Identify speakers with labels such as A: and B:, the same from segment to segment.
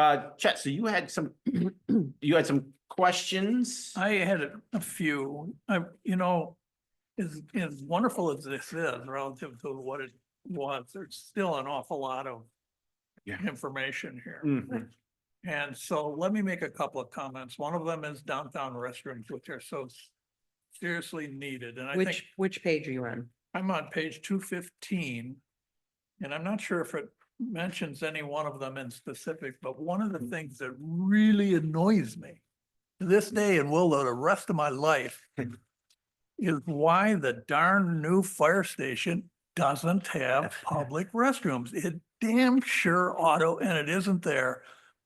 A: Uh, Chet, so you had some, you had some questions?
B: I had a- a few, I, you know, as, as wonderful as this is relative to what it was, there's still an awful lot of
A: Yeah.
B: information here.
A: Mhm.
B: And so let me make a couple of comments. One of them is downtown restrooms, which are so seriously needed, and I think.
C: Which, which page are you on?
B: I'm on page two fifteen. And I'm not sure if it mentions any one of them in specific, but one of the things that really annoys me. To this day and will the rest of my life. Is why the darn new fire station doesn't have public restrooms. It damn sure ought to, and it isn't there.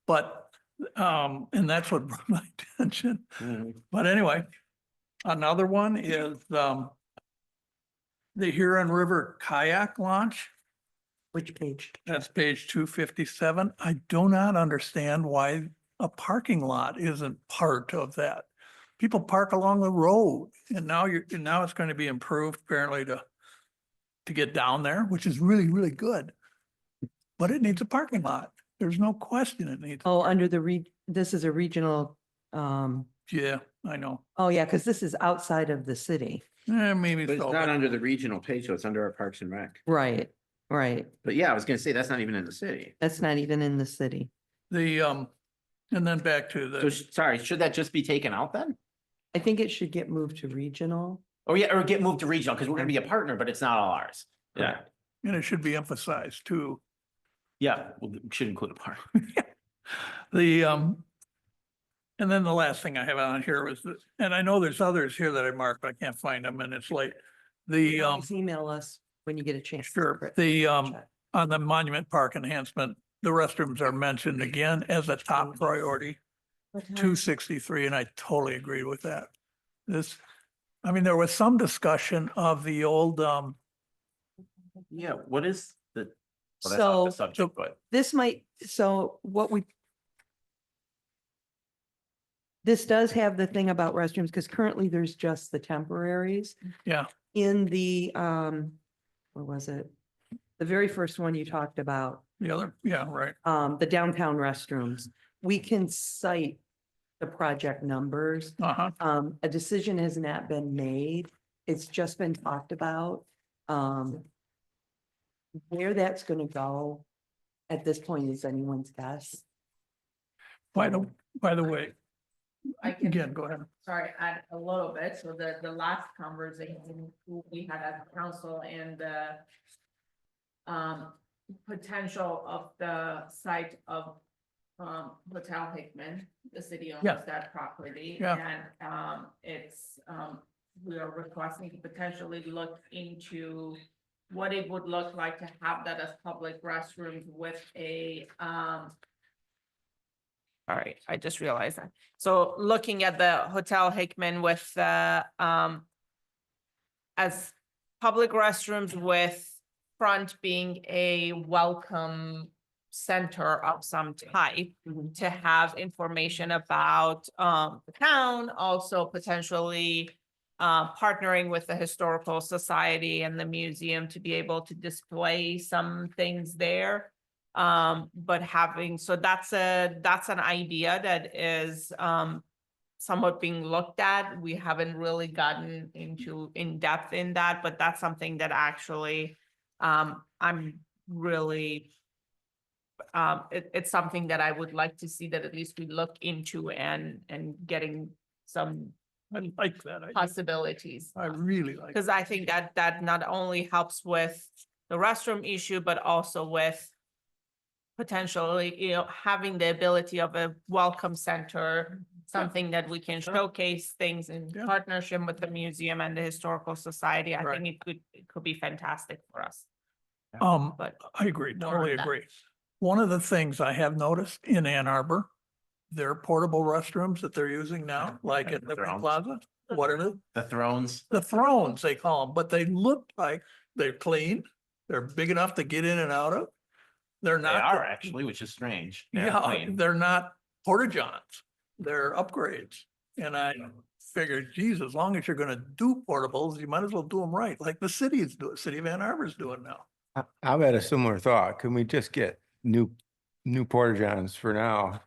B: But, um, and that's what brought my attention.
A: Mhm.
B: But anyway, another one is, um, the Huron River kayak launch.
C: Which page?
B: That's page two fifty-seven. I do not understand why a parking lot isn't part of that. People park along the road and now you're, and now it's going to be improved apparently to, to get down there, which is really, really good. But it needs a parking lot. There's no question it needs,
C: Oh, under the re, this is a regional, um,
B: yeah, I know.
C: oh yeah, because this is outside of the city.
B: Eh, maybe
A: But it's
B: so.
A: not
B: but-
A: under the regional page, so it's under our Parks and Rec.
C: Right, right.
A: But yeah, I was gonna say, that's not even in the city.
C: That's not even in the city.
B: The, um, and then back to
A: So,
B: the,
A: sh- sorry, should that just be taken out then?
C: I think it should get moved to regional.
A: Or yeah, or get moved to regional, because we're gonna be a partner, but it's not all ours. Yeah,
B: and it should be emphasized too,
A: yeah, well, we should include a park.
B: the, um, and then the last thing I have on here was, the- and I know there's others here that I marked, but I can't find them and it's late. The, um,
C: Please Email us when you get a chance.
B: sure, the, um, on the monument park enhancement, the restrooms are mentioned again as a top priority, two sixty-three, and I totally agree with that. This, I mean, there was some discussion of the old, um,
A: Yeah, what is the? well, that's off
C: So
A: the Subject, but.
C: this might, so what we this does have the thing about restrooms, because currently there's just the temporaries.
B: Yeah.
C: In the, um, what was it? The very first one you talked about,
B: the other, yeah, right,
C: um, the downtown restrooms. We can cite the project numbers.
B: uh-huh.
C: Um, a decision has not been made. It's just been talked about. Um, where that's gonna go at this point is anyone's guess.
B: By the, by the way,
D: I can-
B: again, go ahead.
D: sorry, add a little bit, so the, the last conversation we had at the council and the um, potential of the site of um, Hotel Hickman, the city
B: Yeah.
D: owns that property.
B: Yeah.
D: And um, it's, um, we are requesting to potentially look into what it would look like to have that as public restrooms with a um, all right, I just realized that. So looking at the Hotel Hickman with the, um, as public restrooms with front being a welcome center of some type
C: Mhm.
D: to have information about, um, the town, also potentially uh, partnering with the Historical Society and the museum to be able to display some things there. Um, but having, so that's a, that's an idea that is, um, somewhat being looked at. We haven't really gotten into in depth in that, but that's something that actually, um, I'm really, um, it, it's something that I would like to see that at least we look into and, and getting some
B: I like that. I,
D: possibilities.
B: I really like.
D: Because I think that that not only helps with the restroom issue, but also with potentially, you know, having the ability of a welcome center, something that we can
B: Sure.
D: showcase things in
B: Yeah.
D: partnership with the museum and the historical society. I
B: Right.
D: think it could, it could be fantastic for us,
B: Um,
D: but
B: I agree,
D: more
B: totally
D: on that.
B: agree. One of the things I have noticed in Ann Arbor, their portable restrooms that they're using now, like at the Green
A: Thrones.
B: Plaza, what are they?
A: The Thrones.
B: The thrones, they call them, but they look like they're clean. They're big enough to get in and out of. They're
A: They
B: not.
A: are actually, which is strange. They're
B: Yeah,
A: plain.
B: they're not porta johns. They're upgrades. And I figured, geez, as long as you're gonna do portables, you might as well do them right, like the city is doing, city of Ann Arbor is doing now.
E: I- I've had a similar thought. Can we just get new new porta johns for now.